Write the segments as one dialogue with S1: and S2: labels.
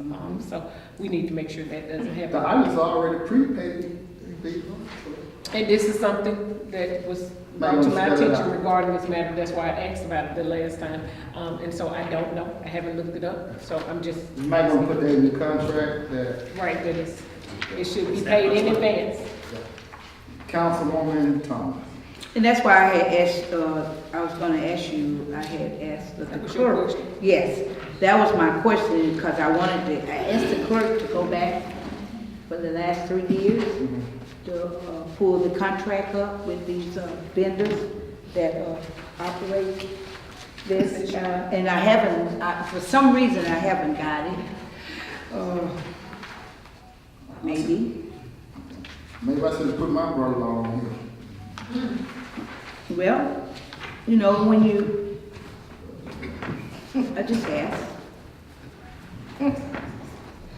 S1: Um, so we need to make sure that doesn't
S2: The
S1: happen.
S2: item's already prepaid, they-
S1: And this is something that was brought to my
S2: Madam, spell it
S1: attention
S2: out.
S1: regarding this matter, that's why I asked about it the last time. Um, and so I don't know, I haven't looked it up, so I'm just,
S2: you might want to put that in the contract that
S1: right, that it's, it should be paid in advance.
S2: Councilwoman Thomas.
S3: And that's why I had asked, uh, I was gonna ask you, I had asked the
S1: That was your
S3: clerk.
S1: question?
S3: Yes, that was my question, because I wanted to, I asked the clerk to go back for the last three years
S1: Mm-hmm.
S3: to, uh, pull the contract up with these, uh, vendors that, uh, operate this. uh, And I haven't, I, for some reason, I haven't got it. Uh, Maybe,
S2: Maybe I should put my brother-in-law on here.
S3: well, you know, when you, I just asked.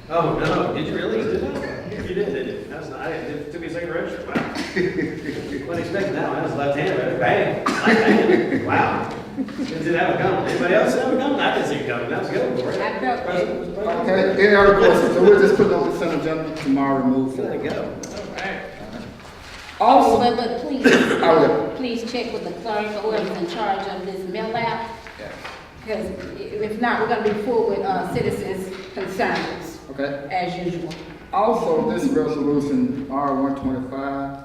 S4: Oh, no, did you really? Did I? You did, did you? That was, I, it took me a second to register, wow. Wasn't expecting that one, that was left-handed, right? bang, left-handed, wow. Didn't see that one coming, anybody else see that one coming? I didn't see it coming, that was good, for it.
S1: I felt it.
S2: Okay, any other questions? So we'll just put it on the Senate agenda tomorrow and move
S4: There
S2: forward.
S4: you go.
S1: Also,
S5: Oh, But, but please,
S2: I will.
S5: please check with the clerk or whoever's in charge of this mail out,
S2: Yeah.
S5: because if not, we're gonna be full with, uh, citizens' concerns,
S2: Okay.
S5: as usual.
S2: Also, this resolution, R one twenty-five,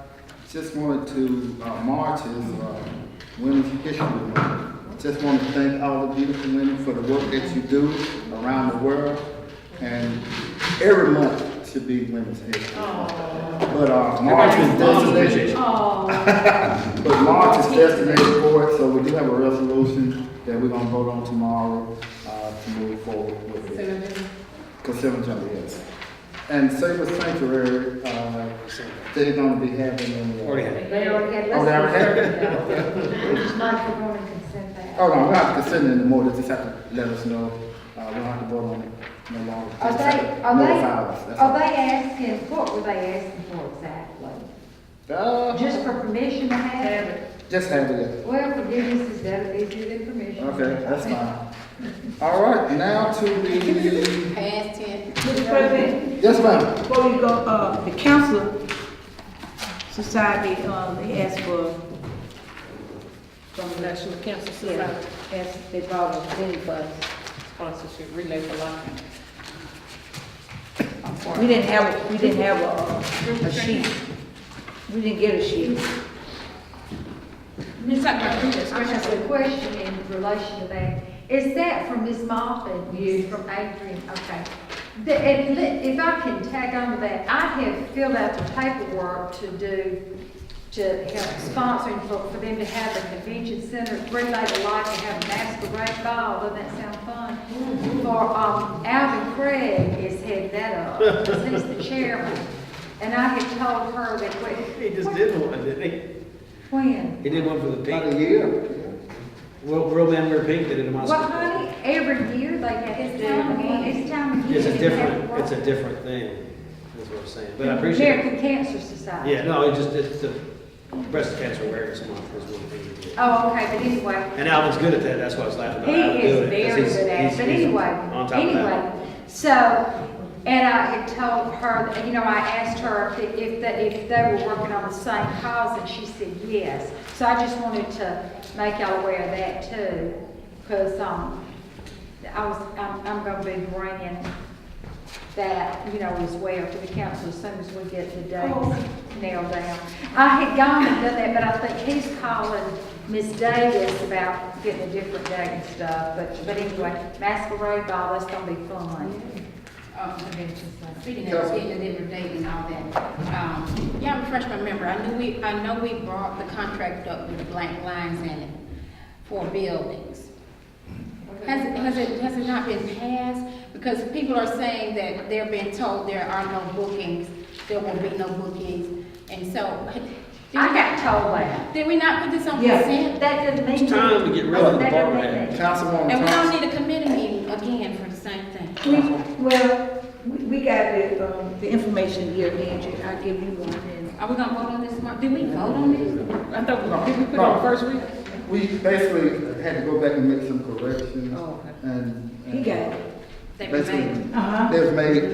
S2: just wanted to, uh, march is, uh, Women's History Month. Just want to thank all the beautiful women for the work that you do around the world. And every month should be Women's History Month. But, uh, March is designated, but March is designated for it, so we do have a resolution that we're gonna vote on tomorrow, uh, to move forward with it. Consumer Jungle, yes. And Saber Sanctuary, uh, they're gonna be having a. uh,
S4: Already had it.
S6: They already had
S2: Oh, they already had
S6: lessons. Not for women consent that.
S2: Oh, no, we don't have to consider it anymore, they just have to let us know, uh, we don't have to vote on it no longer.
S6: Are
S2: Just have
S6: they,
S2: to
S6: are
S2: notify us,
S6: they,
S2: that's
S6: are
S2: all.
S6: they asking, what were they asking for exactly?
S2: Uh,
S6: Just for permission to have it?
S2: just have it,
S6: Well, forgiveness is better, easier than permission.
S2: okay, that's fine. All right, now to the,
S5: Past ten,
S3: Mr. President,
S2: yes, ma'am,
S3: Before we go, uh, the council society, um, they asked for,
S1: from the National Cancer
S3: yeah,
S1: Society
S3: asked, they brought a thing for us.
S1: sponsorship relay for life. I'm sorry.
S3: We didn't have, we didn't have a, a sheet. We didn't get a sheet.
S6: Ms. I have a question in relation to that. Is that from Ms. Moffitt? Yes. From Adrian, okay. The, and li- if I can tag on to that, I have filled out the paperwork to do, to help sponsoring for, for them to have the convention center, relay the light and have a masquerade ball, doesn't that sound fun? For, um, Alvin Craig is heading that up, 'cause he's the chairman. And I had told her that,
S4: He
S6: when,
S4: just did one, didn't he?
S6: when?
S4: He did one for the
S2: about a
S4: pink,
S2: year.
S4: Real, Real Man Wear Pink did it in
S6: Well,
S4: Moscow.
S6: honey, every year, like, it's time again, it's time again.
S4: It's a different, it's a different thing, is what I'm saying, but I appreciate it.
S6: American Cancer Society.
S4: Yeah, no, it just, it's the breast cancer awareness month was one thing he did.
S6: Oh, okay, but anyway,
S4: And Alvin's good at that, that's why I was laughing
S6: He
S4: about Alvin
S6: is
S4: doing it.
S6: very
S4: 'cause he's-
S6: good at it,
S4: he's-
S6: but
S4: he's
S6: anyway,
S4: on top of that.
S6: anyway, so, and I had told her, and, you know, I asked her if, the- if, the- if they were working on the same cause, and she said yes. So I just wanted to make y'all aware of that too, because, um, I was, I'm, I'm gonna be bringing that, you know, as well to the council as soon as we get the dates nailed down. I had gone and done that, but I think he's calling Miss Davis about getting a different date and stuff, but, but anyway, masquerade ball, that's gonna be fun.
S5: uh, convention center. Speaking of, speaking of different dates and all that, um, yeah, refresh my memory, I knew we, I know we brought the contract up with the blank lines in it for buildings. Has it, has it, has it not been passed? Because people are saying that they're being told there are no bookings, there will be no bookings, and so. did we
S6: I got
S5: not-
S6: told that.
S5: Did we not put this on
S3: Yeah.
S5: consent?
S6: That doesn't mean. Oh,
S4: It's time to get rid of the
S6: That doesn't
S4: bar
S6: mean
S4: hat.
S2: Councilwoman
S5: And we don't
S2: Thomas,
S5: need a committee meeting again for the same thing.
S3: We, well, we we got the, um, the information here, Angie, I'll give you one. and-
S5: Are we gonna vote on this month? Did we vote on this?
S1: I thought, did we put it on first week?
S2: we basically had to go back and make some corrections.
S1: Oh, okay.
S2: And. uh,
S3: He got it.
S5: They were
S2: Basically,
S5: made.
S3: Uh-huh.
S2: Uh-huh. They was made